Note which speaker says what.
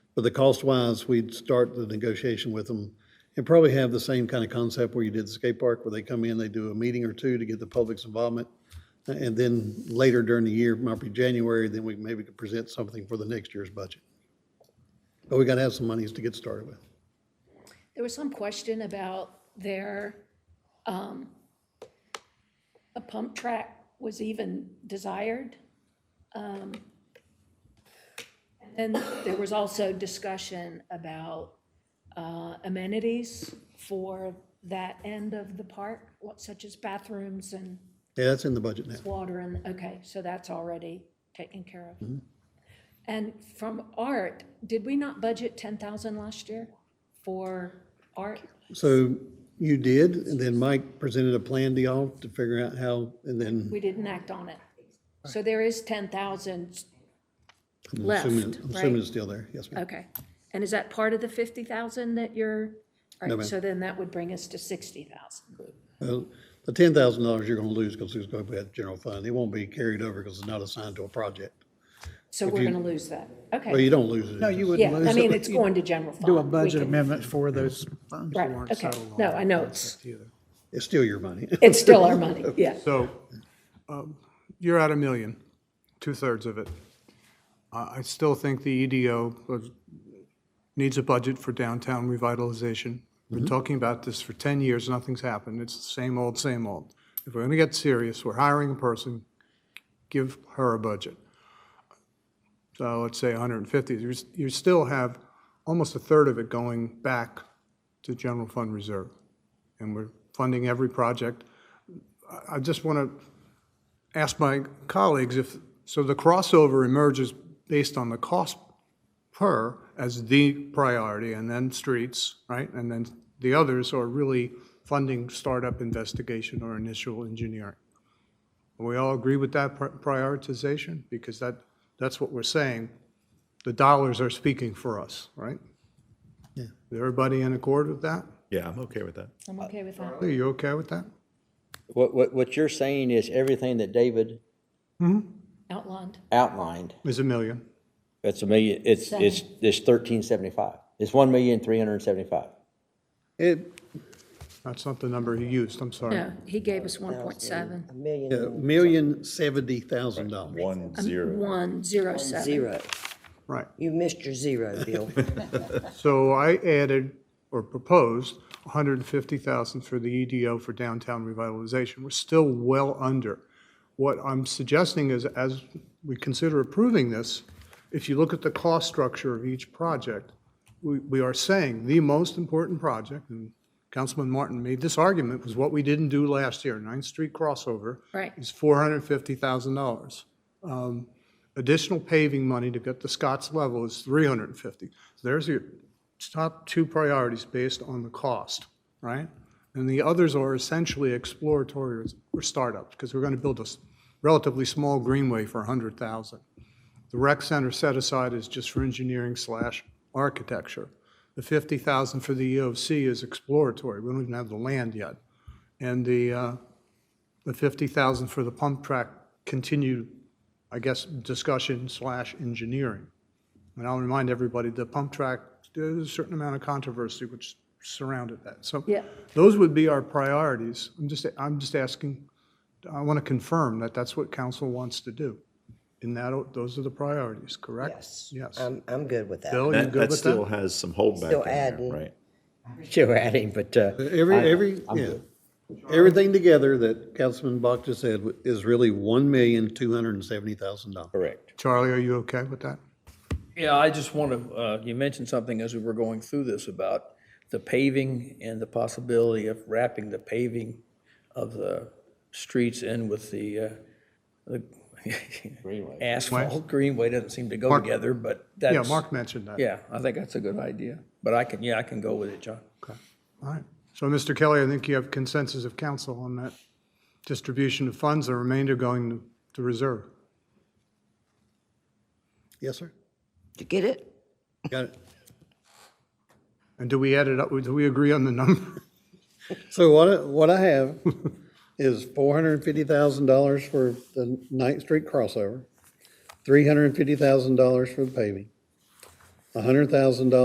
Speaker 1: But the cost-wise, we'd start the negotiation with them and probably have the same kind of concept where you did the skate park, where they come in, they do a meeting or two to get the public's involvement. And then later during the year, might be January, then we maybe could present something for the next year's budget. But we got to have some monies to get started with.
Speaker 2: There was some question about their, um, a pump track was even desired. Um, And there was also discussion about uh, amenities for that end of the park, what- such as bathrooms and
Speaker 1: Yeah, that's in the budget now.
Speaker 2: water and, okay, so that's already taken care of. And from art, did we not budget 10,000 last year for art?
Speaker 1: So you did, and then Mike presented a plan to y'all to figure out how, and then
Speaker 2: We didn't act on it. So there is 10,000
Speaker 1: I'm assuming-
Speaker 2: left,
Speaker 1: I'm assuming
Speaker 2: right?
Speaker 1: it's still there. Yes, ma'am.
Speaker 2: Okay. And is that part of the 50,000 that you're, all
Speaker 1: No,
Speaker 2: right,
Speaker 1: ma'am.
Speaker 2: so then that would bring us to 60,000.
Speaker 1: Well, The ten thousand dollars you're gonna lose because it's gonna be at the general fund. It won't be carried over because it's not assigned to a project.
Speaker 2: So we're going to lose that.
Speaker 1: Well,
Speaker 2: Okay.
Speaker 1: you don't lose it.
Speaker 3: No, you
Speaker 2: Yeah,
Speaker 3: wouldn't lose it.
Speaker 2: I mean,
Speaker 3: but
Speaker 2: it's
Speaker 3: you
Speaker 2: going to general fund.
Speaker 3: Do a
Speaker 2: We
Speaker 3: budget
Speaker 2: can-
Speaker 3: amendment for those funds that
Speaker 2: Right,
Speaker 3: weren't
Speaker 2: okay.
Speaker 3: settled on.
Speaker 2: No, I know,
Speaker 3: That's
Speaker 2: it's-
Speaker 3: the other.
Speaker 1: It's still your money.
Speaker 2: It's still our money, yeah.
Speaker 4: So um, you're at a million, two-thirds of it. I I still think the EDO was- needs a budget for downtown revitalization. We've been talking about this for 10 years, nothing's happened. It's the same old, same old. If we're going to get serious, we're hiring a person, give her a budget. So let's say 150. You're s- You still have almost a third of it going back to general fund reserve. And we're funding every project. I just want to ask my colleagues if, so the crossover emerges based on the cost per as the priority, and then streets, right? And then the others are really funding startup investigation or initial engineering. We all agree with that pri- prioritization? Because that, that's what we're saying. The dollars are speaking for us, right?
Speaker 1: Yeah.
Speaker 4: Is everybody in accord with that?
Speaker 5: Yeah, I'm okay with that.
Speaker 2: I'm okay with that.
Speaker 4: Are you okay with that?
Speaker 6: What, what, what you're saying is everything that David
Speaker 2: Outlined.
Speaker 6: outlined,
Speaker 4: Is a million?
Speaker 6: it's a million, it's, it's, it's thirteen seventy-five. It's one million, three hundred and seventy-five.
Speaker 1: It,
Speaker 4: That's not the number he used, I'm sorry.
Speaker 2: No, he gave us 1.7.
Speaker 7: A million
Speaker 1: a million seventy thousand dollars.
Speaker 5: One, zero.
Speaker 2: One, zero, seven.
Speaker 7: zero.
Speaker 4: Right.
Speaker 7: You missed your zero, Bill.
Speaker 4: So I added or proposed 150,000 for the EDO for downtown revitalization. We're still well under. What I'm suggesting is, as we consider approving this, if you look at the cost structure of each project, we, we are saying the most important project, and Councilman Martin made this argument, was what we didn't do last year, Ninth Street crossover.
Speaker 2: Right.
Speaker 4: Is $450,000 Um, additional paving money to get to Scott's level is 350. So There's your top two priorities based on the cost, right? And the others are essentially exploratory or startups, because we're going to build a s- relatively small greenway for 100,000. The rec center set aside is just for engineering slash architecture. The 50,000 for the EOC is exploratory, we don't even have the land yet. And the, uh, the 50,000 for the pump track continued I guess, discussion slash engineering. And I'll remind everybody, the pump track, there's a certain amount of controversy which surrounded that. So
Speaker 2: Yeah.
Speaker 4: those would be our priorities. I'm just, I'm just asking, I want to confirm that that's what council wants to do. And that, those are the priorities, correct?
Speaker 7: Yes.
Speaker 4: Yes.
Speaker 8: Uh,
Speaker 7: I'm, I'm good with that.
Speaker 4: Bill, you
Speaker 5: That,
Speaker 4: good
Speaker 5: that
Speaker 4: with
Speaker 5: still
Speaker 4: that?
Speaker 5: has some holdback
Speaker 7: Still
Speaker 5: in there,
Speaker 7: adding.
Speaker 5: right?
Speaker 6: Sure, adding, but, uh,
Speaker 1: Every, every, yeah. Everything together that Councilman Bach just said is really one million, two hundred and seventy thousand dollars.
Speaker 6: correct.
Speaker 4: Charlie, are you okay with that?
Speaker 8: Yeah, I just want to, uh, you mentioned something as we were going through this about the paving and the possibility of wrapping the paving of the streets in with the, uh, the asphalt greenway doesn't seem to go together, but that's.
Speaker 4: Yeah, Mark mentioned that.
Speaker 8: Yeah, I think that's a good idea, but I can, yeah, I can go with it, John.
Speaker 4: All right. So, Mr. Kelly, I think you have consensus of council on that distribution of funds, the remainder going to- to reserve.
Speaker 1: Yes, sir.
Speaker 7: Did you get it?
Speaker 1: Got it.
Speaker 4: And do we add it up, do we agree on the number?
Speaker 1: So what, I- what I have is four hundred and fifty thousand dollars for the Ninth Street crossover, three hundred and fifty thousand dollars for the paving, $100,000